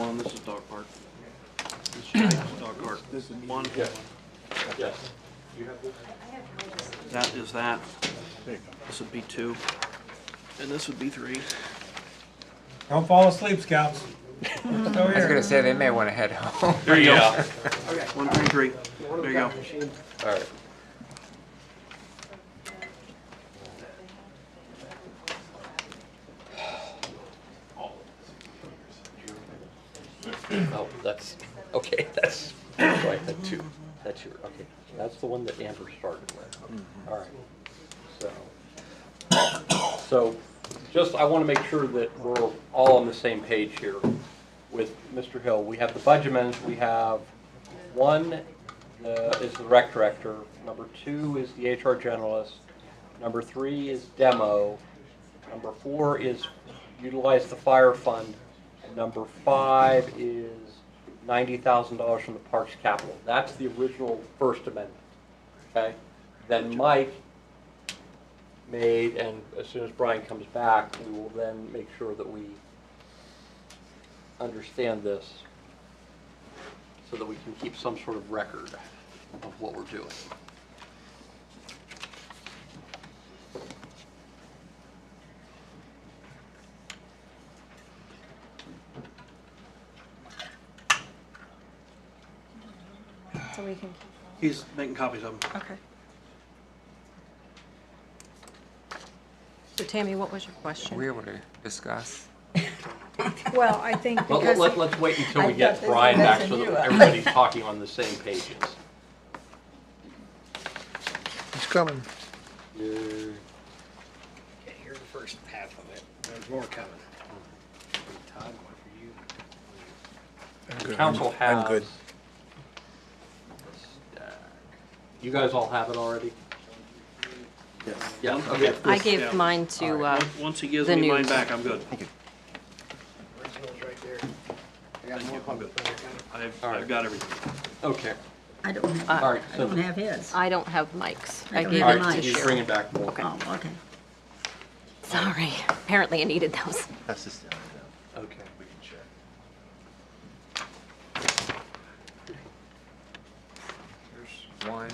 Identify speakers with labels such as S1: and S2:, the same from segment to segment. S1: Dog cart. One,
S2: Yes.
S1: that is that.
S3: There you go.
S1: This would be two. And this would be three.
S4: Don't fall asleep, scouts. Still
S5: I was gonna
S4: here.
S5: say, they may wanna head home.
S1: There you go.
S2: Yeah.
S1: One, three, three. There you go.
S5: Alright.
S2: Oh, that's, okay, that's, right, the two, that's your, okay, that's the one that Amber started with. All right, so. So, just, I want to make sure that we're all on the same page here with Mr. Hill. We have the budget amendments, we have, one uh, is the rec director, number two is the HR generalist, number three is demo, number four is utilize the fire fund, and number five is ninety thousand dollars from the parks capital. That's the original First Amendment, okay? Then Mike made, and as soon as Brian comes back, we will then make sure that we understand this so that we can keep some sort of record of what we're doing.
S6: So we can
S1: He's making copies of them.
S6: keep, okay. So Tammy, what was your question?
S5: We able to discuss?
S6: Well, I think
S2: Well,
S6: because.
S2: let, let's wait until we
S7: I've got
S2: get
S7: this
S2: Brian
S7: one
S2: back
S7: that's
S2: so
S7: in
S2: that
S7: you.
S6: uh,
S2: everybody's talking on the same pages.
S3: He's coming.
S2: Uh,
S8: Okay, here's the first half of it. There's more coming. Todd, one for you.
S2: The council has.
S3: I'm good.
S2: You guys all have it already?
S3: Yes.
S2: Yeah, okay.
S6: I gave
S1: Yeah.
S6: mine to, uh,
S1: Once he gives
S6: The
S1: me mine
S6: news.
S1: back, I'm good.
S8: Original's right there. I got more coming.
S1: I've,
S2: All right.
S1: I've got everything.
S2: Okay.
S7: I don't have,
S2: All
S7: I
S2: right, so-
S7: don't have his.
S6: uh, I don't have Mike's.
S7: I
S6: I
S7: don't
S6: gave
S2: All
S7: have
S6: them
S2: right,
S6: to
S7: mine.
S2: he's bringing
S6: Sharon.
S2: back more.
S7: Oh, okay.
S6: Sorry, apparently I needed those.
S3: That's just,
S2: Okay.
S3: we can check.
S5: One.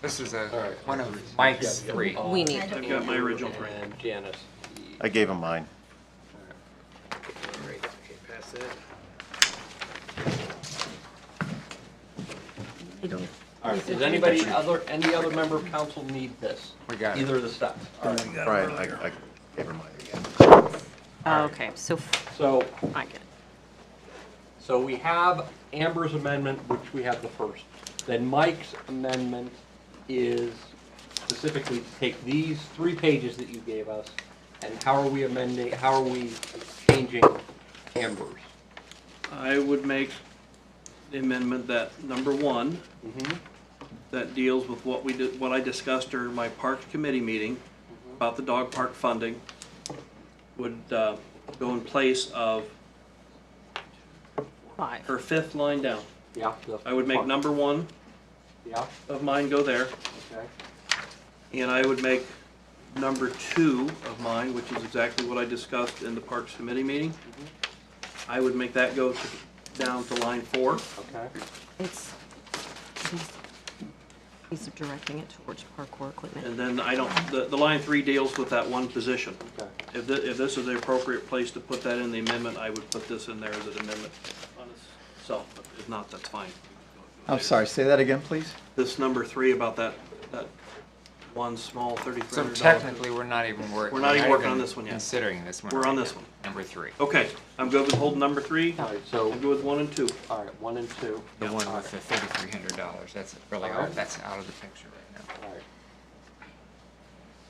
S5: This is a,
S2: All right.
S5: one of Mike's
S2: Yeah, yeah.
S5: three.
S2: Uh,
S6: We need,
S1: I've got my original three.
S2: And Janice.
S9: I gave him mine.
S8: Great, okay, pass that.
S7: I don't.
S2: All right, does anybody, other, any other member of council need this?
S5: We got it.
S2: Either of the stuff. All right,
S9: Brian, I, I gave him mine again.
S6: oh, okay, so f-
S2: so
S6: I get it.
S2: So we have Amber's amendment, which we have the first. Then Mike's amendment is specifically to take these three pages that you gave us, and how are we amending, how are we changing Amber's?
S1: I would make the amendment that number one,
S2: Mm-hmm.
S1: that deals with what we did, what I discussed during my parks committee meeting about the dog park funding, would, uh, go in place of
S6: Five.
S1: her fifth line down.
S2: Yeah. the-
S1: I would make number one
S2: Yeah,
S1: of mine go there,
S2: okay.
S1: and I would make number two of mine, which is exactly what I discussed in the Parks Committee meeting.
S5: Mm-hmm.
S1: I would make that go to, down to line four.
S2: Okay.
S6: It's, he's- he's directing it towards parkour equipment.
S1: And then I don't, the, the line three deals with that one position.
S2: Okay.
S1: If thi, if this is the appropriate place to put that in the amendment, I would put this in there as an amendment on itself, but if not, that's fine.
S9: I'm sorry, say that again, please?
S1: This number three about that, that one small thirty-three
S5: So
S1: hundred dollar.
S5: technically, we're not even working.
S1: We're not even working on this one yet.
S5: Considering this one.
S1: We're on
S5: right
S1: this
S5: now.
S1: one.
S5: Number three.
S1: Okay, I'm good with holding number three,
S2: All
S1: I'm
S2: right, so,
S1: good with one and two.
S2: all right, one and two.
S5: The one
S2: All right.
S5: with the thirty-three hundred dollars, that's really,
S2: Alright.
S5: all- that's out of the picture right now.
S2: All right.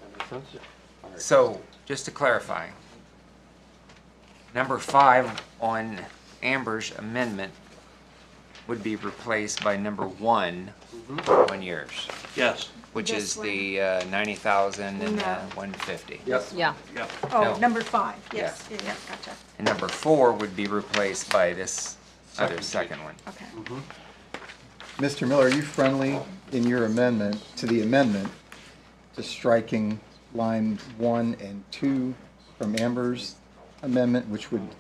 S2: That makes sense? All right.
S5: So, just to clarify, number five on Amber's amendment would be replaced by number one on yours,
S1: Yes,
S5: which
S7: This
S5: is
S7: one.
S5: the uh, ninety thousand and uh,
S7: No.
S5: one fifty.
S2: Yep.
S6: Yeah,
S1: yeah.
S5: No.
S7: Oh, number five, yes,
S5: Yeah.
S7: yeah, yeah, gotcha,
S5: And number four would be replaced by this other second one.
S7: okay.
S9: Mr. Miller, are you friendly in your amendment, to the amendment, to striking line one and two from Amber's amendment, which would